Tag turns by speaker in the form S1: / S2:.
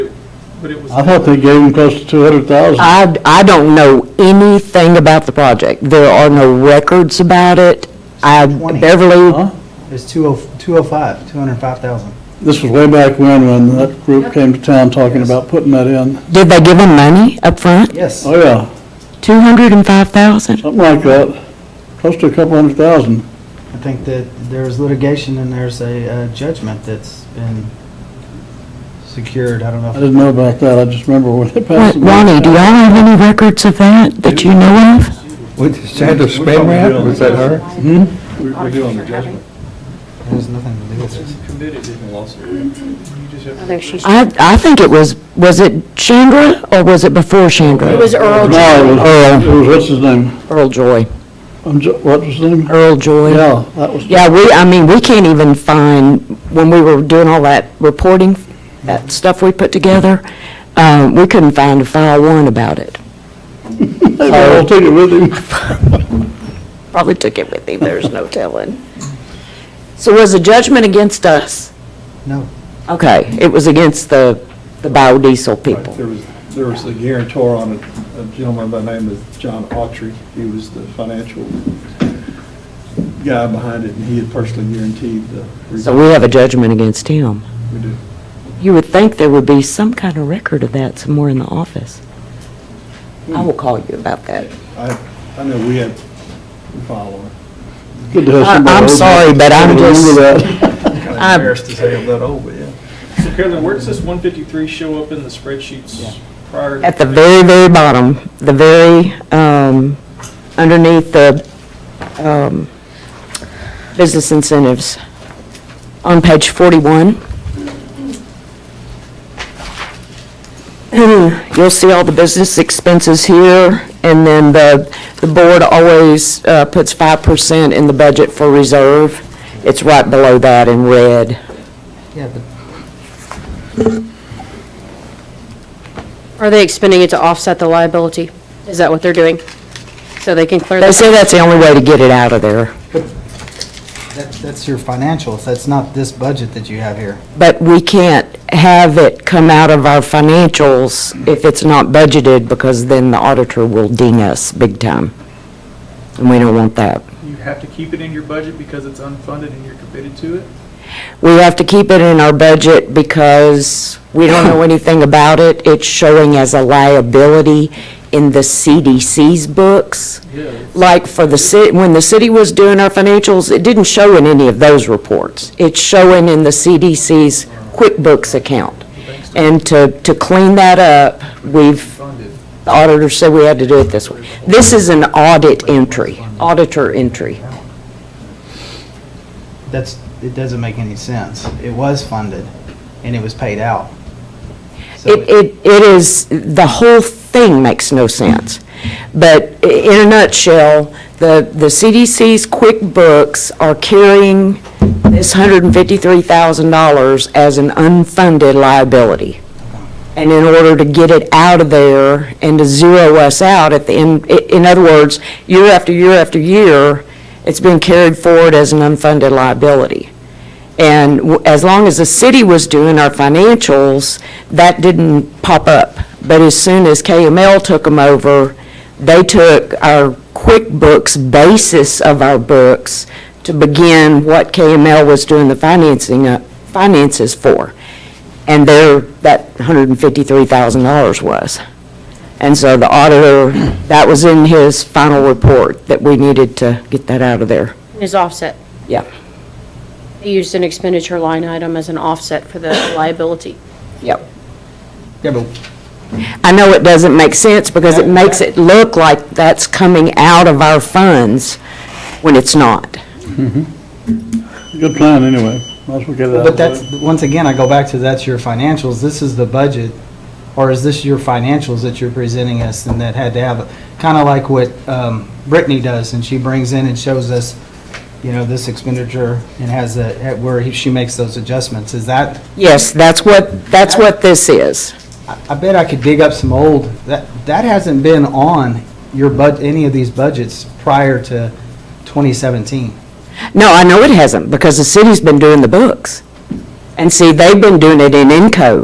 S1: But it was,
S2: I thought they gave them close to two hundred thousand.
S3: I, I don't know anything about the project. There are no records about it. I,
S4: 20.
S3: Beverly,
S4: It's oh, 20 205, 205,000.
S2: This was way back when, when that group came to town talking about putting that in.
S3: did they give him money up front?
S4: Yes.
S2: Oh, yeah,
S3: 205,000?
S2: something like that, close to a couple hundred thousand.
S4: I think that there's litigation and there's a uh, judgment that's been secured. I don't
S2: I
S4: know. if
S2: didn't know about that, I just remember when they passed it.
S3: Ronnie, do y'all have any records of that that you know of?
S5: What, Sandra Spanrath, was that her?
S6: We're doing the judgment.
S4: There's nothing to do with this.
S1: committed in a lawsuit. You just have to-
S3: I, I think it was, was it Chandra or was it before Chandra?
S6: It was Earl
S2: No,
S6: Jones.
S2: it was, it was, what's his name?
S3: Earl Joy.
S2: Um, Jo- What was his name?
S3: Earl Joy.
S2: Yeah, that was,
S3: Yeah, we, I mean, we can't even find, when we were doing all that reporting, that stuff we put together, uh, we couldn't find a file one about it.
S2: maybe I'll take it with him.
S3: Probably took it with him, there's no telling. So was the judgment against us?
S4: No.
S3: Okay, it was against the, the biodiesel
S6: Right,
S3: people.
S6: There was, there was a guarantor on it, a gentleman by the name of John Autry. He was the financial guy behind it, and he had personally guaranteed the.
S3: So we have a judgment against him.
S6: We do.
S3: You would think there would be some kind of record of that somewhere in the office. I will call you about that.
S6: I, I know we had a file on it.
S2: Good to have
S3: I-
S2: somebody old
S3: I'm
S2: enough
S3: sorry, but
S2: to
S3: I'm just-
S2: Remember that.
S6: Kind
S3: I'm-
S6: of embarrassed to say I'm that old, but oh, yeah.
S1: So Carolyn, where does this 153 show up in the spreadsheets prior? to-
S3: At the very, very bottom, the very, um, underneath the um, business incentives, on page 41, you'll see all the business expenses here, and then the, the board always uh, puts 5% in the budget for reserve. It's right below that in red.
S4: Yeah, but
S7: Are they expending it to offset the liability? Is that what they're doing? So they can clear
S3: They
S7: this?
S3: say that's the only way to get it out of there.
S4: that- that's your financials. That's not this budget that you have here.
S3: But we can't have it come out of our financials if it's not budgeted, because then the auditor will ding us big time. And we don't want that.
S1: You have to keep it in your budget because it's unfunded and you're committed to it?
S3: We have to keep it in our budget because we don't know anything about it. It's showing as a liability in the CDC's books.
S1: Yeah.
S3: Like for the city, when the city was doing our financials, it didn't show in any of those reports. It's showing in the CDC's QuickBooks account.
S1: Thanks to
S3: And to, to clean that up, we've,
S1: funded.
S3: the auditor said we had to do it this way. This is an audit entry, auditor entry.
S4: That's, it doesn't make any sense. It was funded and it was paid out. So
S3: It, it, it is, the whole thing makes no sense. But i- in a nutshell, the, the CDC's QuickBooks are carrying this $153,000 as an unfunded liability. And in order to get it out of there and to zero us out at the end, i- in other words, year after year after year, it's been carried forward as an unfunded liability. And w- as long as the city was doing our financials, that didn't pop up. But as soon as KML took them over, they took our QuickBooks basis of our books to begin what KML was doing the financing, uh, finances for. And there, that $153,000 was. And so the auditor, that was in his final report, that we needed to get that out of there.
S7: Is offset?
S3: Yeah.
S7: They used an expenditure line item as an offset for the liability.
S3: Yep.
S4: Yeah, but
S3: I know it doesn't make sense because it makes it look like that's coming out of our funds when it's not.
S2: Good plan, anyway, might as well get it out of
S4: But
S2: the way.
S4: that's, once again, I go back to that's your financials, this is the budget, or is this your financials that you're presenting us and that had to have, kind of like what um, Brittany does, and she brings in and shows us, you know, this expenditure and has a, at where he- she makes those adjustments, is that,
S3: Yes, that's what, that's what this is.
S4: I I bet I could dig up some old, that, that hasn't been on your bud, any of these budgets prior to 2017.
S3: No, I know it hasn't because the city's been doing the books. And see, they've been doing it in Encode.